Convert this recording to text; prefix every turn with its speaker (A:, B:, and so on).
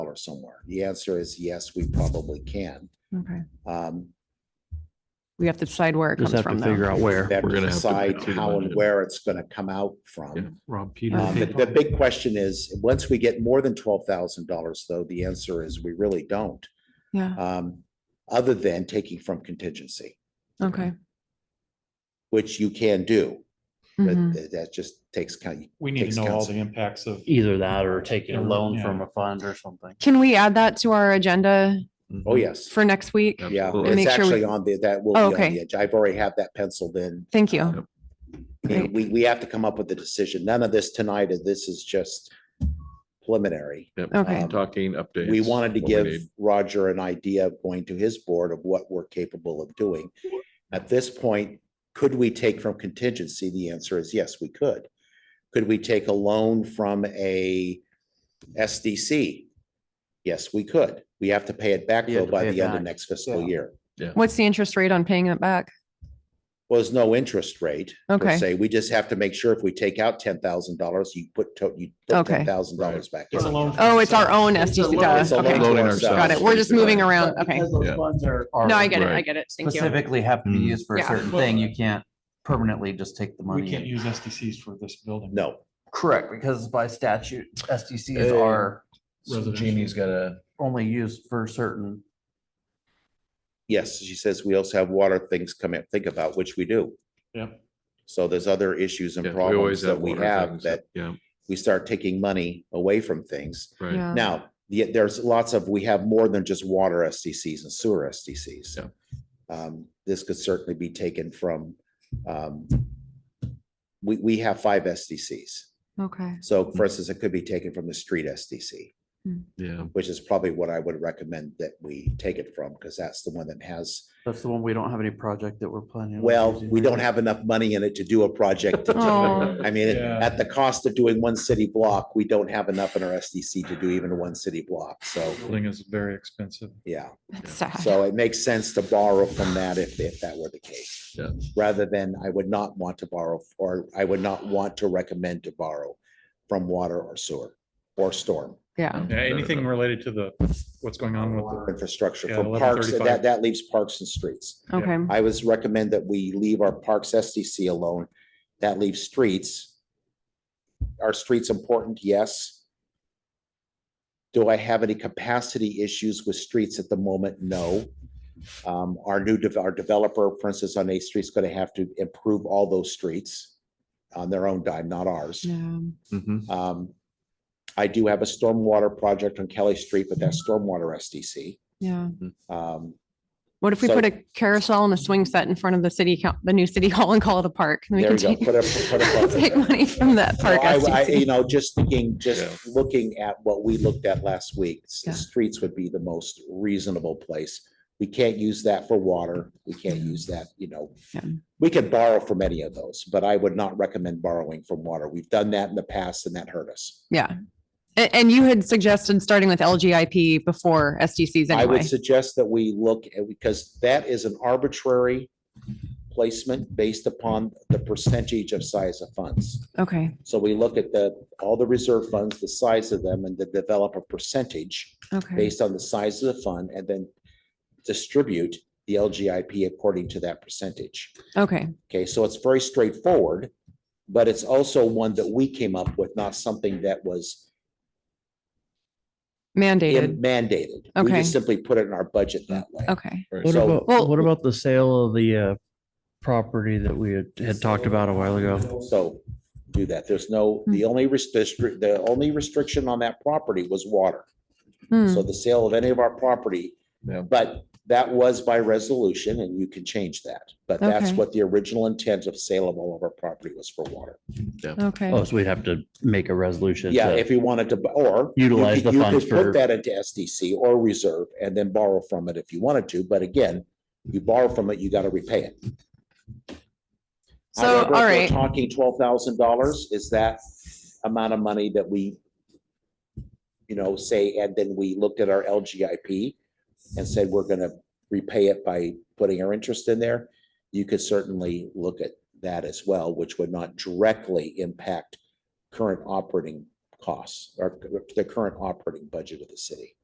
A: power somewhere? The answer is yes, we probably can.
B: Okay.
A: Um,
B: We have to decide where it comes
C: Just have to
B: from though.
C: figure out where.
A: That
D: We're
A: we
D: gonna have to
A: decide
D: make sure the
A: how and
D: budget-
A: where it's gonna come out
D: Yeah.
A: from.
C: Rob Peter.
A: Um, The the big question is, once we get more than twelve thousand dollars, though, the answer is we really don't.
B: Yeah,
A: um, Other than taking from contingency,
B: okay.
A: which you can do, but
B: Mhm.
A: th- that just takes kind of,
E: We need
A: Takes
E: to know all
A: counsel.
E: the impacts of.
C: Either that or taking a loan
E: Yeah.
C: from a fund or something.
B: Can we add that to our agenda
A: oh, yes.
B: for next week?
D: Yep.
A: Yeah,
D: Absolutely.
A: it's
B: Make sure we-
A: actually on the, that will be
B: Oh,
A: on
B: okay.
A: the edge. I've already have that penciled in.
B: Thank you.
A: And
B: Great.
A: we, we have to come up with a decision. None of this tonight, is this is just preliminary.
D: Yep.
B: Okay.
D: Talking updates.
A: Um, We wanted to
D: what we
A: give
D: need.
A: Roger an idea of going to his board of what we're capable of doing. At this point, could we take from contingency? The answer is yes, we could. Could we take a loan from a SDC? Yes, we could. We have to pay it back
C: You have
A: though
C: to
A: by
C: pay it
A: the end of
C: back.
A: next fiscal
C: Yeah.
A: year.
B: What's the interest rate on paying it back?
A: was no interest rate. per
B: Okay.
A: se. We just have to make sure if we take out ten thousand dollars, you put, to- you put
B: Okay.
A: ten thousand dollars back. in.
E: It's a loan from
B: Oh, it's our
E: ourselves.
B: own
F: It's a
B: SDC.
F: loan.
B: duh.
A: It's a
B: Okay.
A: loan to
D: Loading
A: ourselves.
B: Got it. We're just moving around.
F: But
B: Okay.
F: Because those
D: Yeah.
F: funds are.
B: No, I get it. I
D: Right.
B: get it. Thank you.
G: specifically have to be
D: Mm.
G: used for a
B: Yeah.
G: certain
E: Well,
G: thing.
E: uh,
G: You can't permanently just take the
E: We can't
G: money.
E: use SDCs for this building.
A: No,
G: Correct, because by statute, SDCs
D: Hey.
G: are
D: Jeannie's got a.
G: only used for certain.
A: yes, she says we also have water things come in, think about, which we do.
E: Yep.
A: So there's other issues and
D: Yeah, we
A: problems
D: always
A: that we
D: water
A: have
D: things.
A: that
D: Yeah,
A: we start taking money away from things.
D: right.
B: Yeah.
A: Now, yeah, there's lots of, we have more than just water SDCs and sewer SDCs.
D: Yeah.
A: Um, this could certainly be taken from, um, we, we have five SDCs.
B: Okay.
A: So
D: Mm-hmm.
A: for instance, it could be taken from the street SDC,
D: Yeah.
A: which is probably what I would recommend that we take it from, because that's the one that has,
G: That's the one we don't have any project that we're planning. on
A: well,
G: using
A: we
G: right
A: don't
G: now.
A: have enough money in it to do a project. to do it.
B: Oh,
A: I mean, it-
E: Yeah.
A: at the cost of doing one city block, we don't have enough in our SDC to do even one city block. So,
E: Building is very expensive.
A: yeah,
B: that's sad.
A: so it makes sense to borrow from that if, if that were the case.
D: Yeah.
A: Rather than I would not want to borrow, or I would not want to recommend to borrow from water or sewer or storm.
B: Yeah.
E: Yeah, anything related to the, what's going on with
A: infrastructure
E: Yeah,
A: for parks,
E: 1135.
A: that, that leaves parks and streets.
E: Yeah.
B: Okay.
A: I was recommend that we leave our parks SDC alone. That leaves streets. Are streets important? Yes. Do I have any capacity issues with streets at the moment? No. Um, our new, dev- our developer, for instance, on Eighth Street is going to have to improve all those streets on their own dime, not ours.
B: Yeah.
D: Mhm.
B: Mm-hmm.
A: Um, I do have a stormwater project on Kelly Street, but that's stormwater SDC.
B: Yeah.
A: Um,
B: What if we
A: So-
B: put a carousel and a swing set in front of the city, coun- the new city hall and call it a park? and we
A: There
B: can
A: you go.
B: take-
A: Put a- put a park in
B: Take
A: there.
B: money from that
A: so
B: park. E
A: I, I,
B: SDC.
A: you know, just thinking,
D: Yeah.
A: just looking at what we looked at last week, s-
B: Yeah.
A: streets would be the most reasonable place. We can't use that for water. We can't use that, you know.
B: Yeah.
A: We could borrow from any of those, but I would not recommend borrowing from water. We've done that in the past and that hurt us.
B: Yeah. And, and you had suggested starting with LGIP before SDCs
A: I
B: anyway.
A: would suggest that we look at, because that is an arbitrary placement based upon the percentage of size of funds.
B: Okay,
A: So we look at the, all the reserve funds, the size of them, and then develop a percentage
B: okay,
A: based on the size of the fund, and then distribute the LGIP according to that percentage.
B: okay.
A: Okay, so it's very straightforward, but it's also one that we came up with, not something that was
B: Mandated.
A: mandated. We
B: Okay. Mm-hmm.
A: just simply put it in our budget that way.
B: Okay.
C: What
A: So-
C: about,
B: Well-
C: what about the sale of the uh, property that we had- had talked about a while ago?
A: So do that. There's no, the
B: Mm-hmm.
A: only restriction, the only restriction on that property was water.
B: Hmm.
A: So the sale of any of our property,
D: Yeah.
A: but that was by resolution and you can change that. But that's
B: Okay.
A: what the original intent of sale of all of our property was for water.
C: Oh,
B: Okay,
C: so we'd have to make a resolution.
A: Yeah,
C: to-
A: if you wanted to, bu- or. you
C: Utilize
A: could-
C: the
A: you could
C: funds
A: Put
C: for-
A: that into SDC or reserve and then borrow from it if you wanted to. But again, you borrow from it, you got to repay it.
B: so,
A: However,
B: all
A: if we're
B: right,
A: Talking twelve thousand dollars is that amount of money that we, you know, say, and then we looked at our LGIP and said, we're gonna repay it by putting our interest in there. You could certainly look at that as well, which would not directly impact current operating costs or the current operating budget of the city.